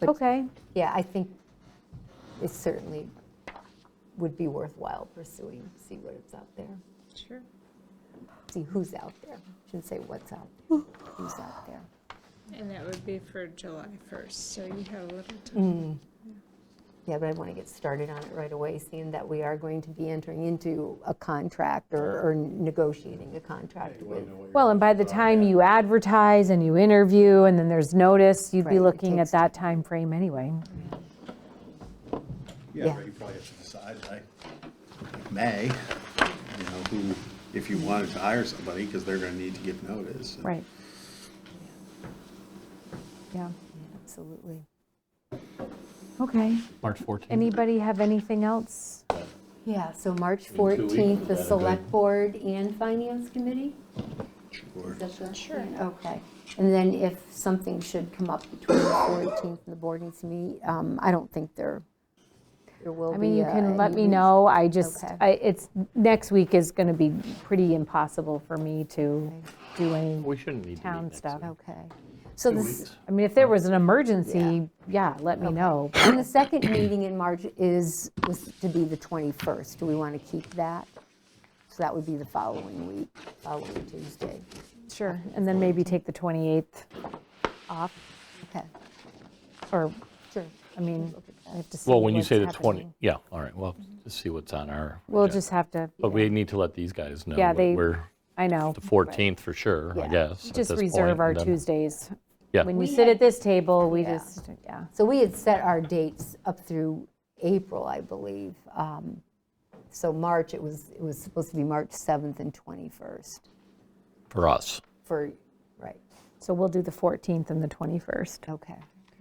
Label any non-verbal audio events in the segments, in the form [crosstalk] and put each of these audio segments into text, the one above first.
But- Okay. Yeah, I think it certainly would be worthwhile pursuing, see what is out there, Sure. see who's out there. Shouldn't say what's out, there, who's out there. And that would be for July 1st, so you have a little time. Mm. Yeah, but I want to get started on it right away, seeing that we are going to be entering into a contract or or negotiating a contract with. Well, and by the time you advertise and you interview and then there's notice, you'd Right, be it looking at takes that time frame anyway. yeah. Yeah, but you probably have to decide, like, May, you know, who, if you wanted to hire somebody, because they're gonna need to give notice. Right. Yeah, Absolutely. okay. March 14th. Anybody have anything else? Yeah, so March two weeks, 14th, the is that a good- Select Board and Finance Committee? Sure. Is that the- yeah, Okay. And then if something should come up between the 14th and the board needs to meet, um, I don't think there, there will be. I mean, you uh, can let any me reason- know, I just, Okay. I- it's, next week is going to be pretty impossible for me to do any, We shouldn't need to meet Town next stuff. week. Okay. So Two this, weeks. I mean, if there was an emergency, yeah, let me know. and the second meeting in March is, was to be the 21st. Do we want to keep that? So that would be the following week, following Tuesday. Sure, and then maybe take the 28th off, Okay, or, sure. I mean, I have to see Well, when you what's say the 20, happening. yeah, all right, well, just see what's on our. We'll agenda. just have to, But we need to let these guys know. Yeah, that they- We're I know, Oh, the 14th for sure, I Yeah. guess. at just this reserve point, our and then- Tuesdays. Yeah. When you We had- sit at this table, we Yeah. just, yeah. So we had set our dates up through April, I believe. Um, So March, it was, it was supposed to be March 7th and 21st For us. for, right, So we'll do the 14th and the 21st, okay.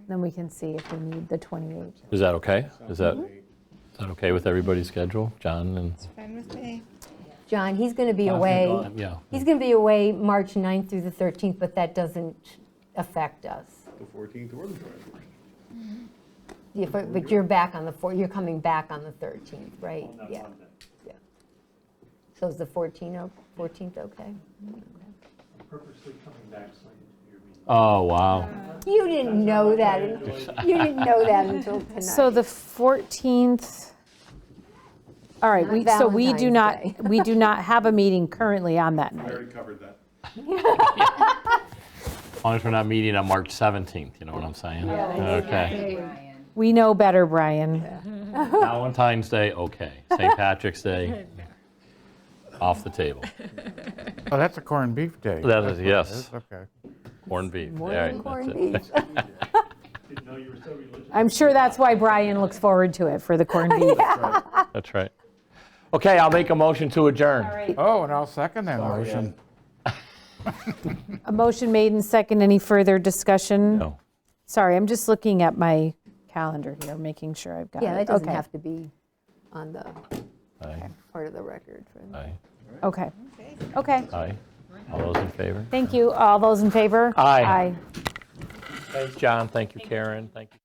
then we can see if we need the 28th. Is that okay? Is that, Mm-hmm. is that okay with everybody's schedule? John and, Fine with me. John, he's going to be John's away. gone, yeah. He's going to be away March 9th through the 13th, but that doesn't affect us. The fourteenth or the twenty-first. Yeah, But but you're back on the, four- you're coming back on the 13th, right? Yeah. Yeah. So is the 14th, o- 14th okay? purposely coming back slated to your meeting. oh, wow. You didn't know that, you didn't know that until tonight. So the 14th, all right, Not we, so we do Valentine's not, we do not have a meeting currently on that I night. already covered that. As long as we're not meeting on March 17th, you know what I'm saying? Okay. We know better, Brian. [laughs] Valentine's Day, okay. St. [laughs] Patrick's Day, off the table. Oh, that's a corned beef day. That is- That's what it yes. Okay. Corned beef. More all right, than that's corned it. beef. Didn't know you were so religious. I'm sure that's why Brian looks forward to it for [laughs] the corned beef. That's right. Okay, I'll make a motion to adjourn. Oh, and I'll second that motion. A motion made and second, any further discussion? No. Sorry, I'm just looking at my calendar here, making sure I've got [laughs] it. Yeah, that doesn't Okay, have to be on the Aye, part of the record for aye, Okay, okay, aye. All those in favor? thank you. All those in favor? Aye. Aye. Thanks, John. Thank you, Karen. Thank you.